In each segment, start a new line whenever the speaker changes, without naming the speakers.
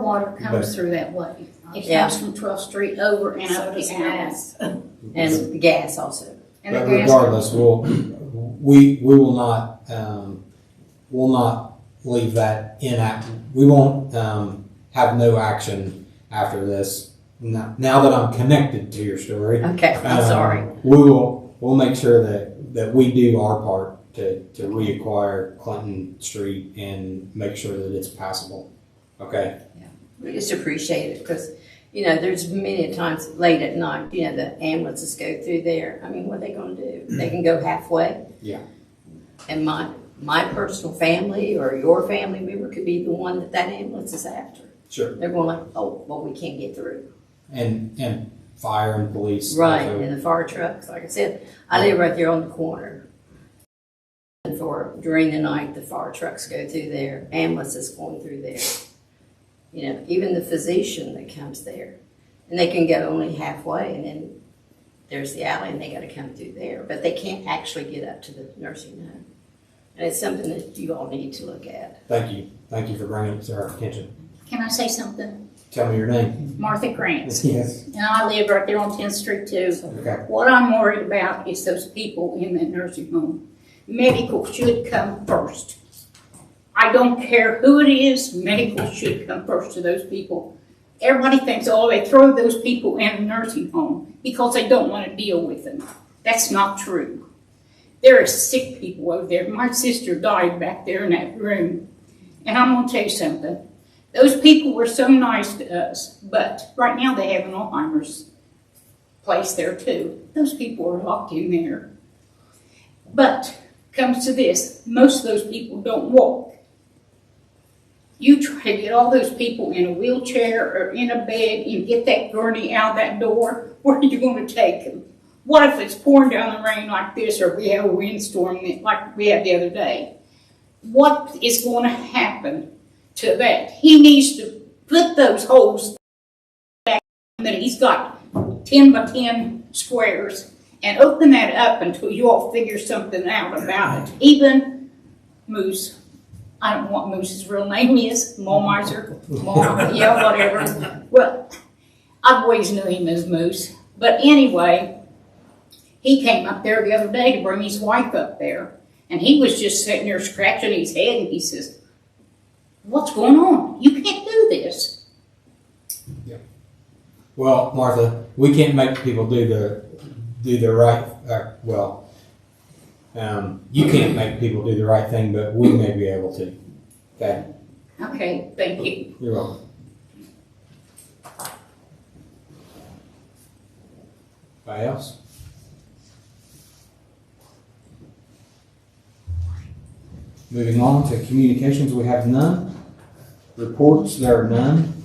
Water comes through that way. It
Yeah.
comes from 12th Street over and
So
up
does
the house.
gas. And gas also.
And the
But
gas-
regardless, we'll, we, we will not, um, will not leave that inact, we won't, um, have no action after this. Now, now that I'm connected to your story.
Okay, I'm
um,
sorry.
We will, we'll make sure that, that we do our part to, to reacquire Clinton Street and make sure that it's passable. Okay?
We just appreciate it because, you know, there's many times late at night, you know, the ambulances go through there. I mean, what are they gonna do? They can go halfway.
Yeah.
And my, my personal family or your family member could be the one that that ambulance is after.
Sure.
They're going like, oh, well, we can't get through.
And, and fire and police.
Right,
also.
and the fire trucks, like I said, I live right there on the corner. And for, during the night, the fire trucks go through there, ambulances going through there. You know, even the physician that comes there, and they can go only halfway, and then there's the alley, and they gotta come through there, but they can't actually get up to the nursing home. And it's something that you all need to look at.
Thank you, thank you for bringing it to our attention.
Can I say something?
Tell me your name.
Martha Grant.
Yes.
And I live right there on 10th Street too.
Okay.
What I'm worried about is those people in that nursing home. Medical should come first. I don't care who it is, medical should come first to those people. Everybody thinks, oh, they throw those people in a nursing home because they don't want to deal with them. That's not true. There are sick people over there. My sister died back there in that room. And I'm going to tell you something. Those people were so nice to us, but right now they have an Alzheimer's place there too. Those people are locked in there. But comes to this, most of those people don't walk. You try to get all those people in a wheelchair or in a bed and get that gurney out that door, where are you gonna take them? What if it's pouring down the rain like this or we have a windstorm like we had the other day? What is gonna happen to that? He needs to put those holes that he's got ten by ten squares and open that up until you all figure something out about it. Even Moose, I don't know what Moose's real name is, Mulmiser, Mul, yeah, whatever. Well, I've always knew him as Moose, but anyway, he came up there the other day to bring his wife up there, and he was just sitting there scratching his head, and he says, "What's going on? You can't do this."
Well, Martha, we can't make people do the do the right. Uh, well, um, you can't make people do the right thing, but we may be able to. Okay,
Okay, thank you.
you're welcome. Anybody else? Moving on to communications, we have none. Reports, there are none.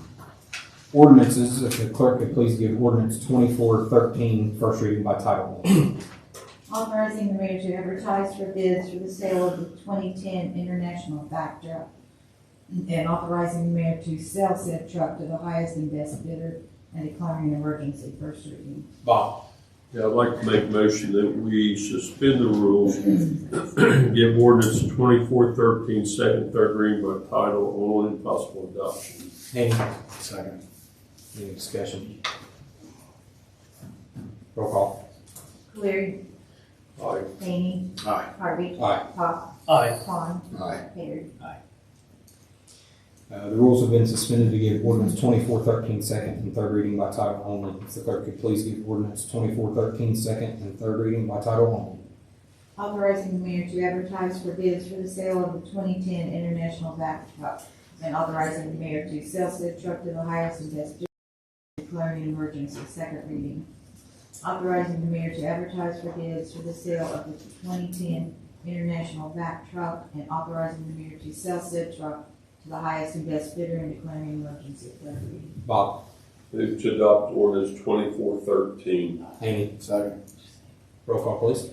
Ordinances, if the clerk could please give ordinance twenty-four thirteen first reading by title only.
Authorizing the mayor to advertise for bids for the sale of the 2010 International Back Truck. And authorizing the mayor to sell said truck to the highest and best bidder and declaring an emergency first reading.
Bob,
Yeah, I'd like to make a motion that we suspend the rules, give ordinance twenty-four thirteen second, third reading by title only and possible adoption.
any? Second. Any discussion? Roll call.
Cleary.
Aye.
Hany.
Aye.
Harvey.
Aye.
Hawk.
Aye.
Vaughn.
Aye.
Harry.
Uh, the rules have been suspended to give ordinance twenty-four thirteen second and third reading by title only. If the clerk could please give ordinance twenty-four thirteen second and third reading by title only.
Authorizing the mayor to advertise for bids for the sale of the 2010 International Back Truck. And authorizing the mayor to sell said truck to the highest and best bidder. Declaring an emergency, second reading. Authorizing the mayor to advertise for bids for the sale of the 2010 International Back Truck. And authorizing the mayor to sell said truck to the highest and best bidder and declaring an emergency, third reading.
Bob,
Move to adopt ordinance twenty-four thirteen.
Amy,
Second.
roll call please.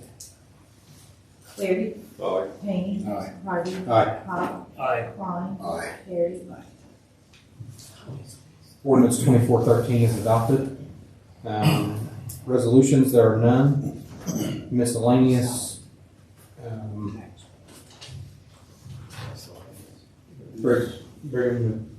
Cleary.
Aye.
Hany.
Aye.
Harvey.
Aye.
Hawk.
Aye.
Vaughn.
Aye.
Harry.
Ordinance twenty-four thirteen is adopted. Um, resolutions, there are none. Miscellaneous, um, Brig- Brigham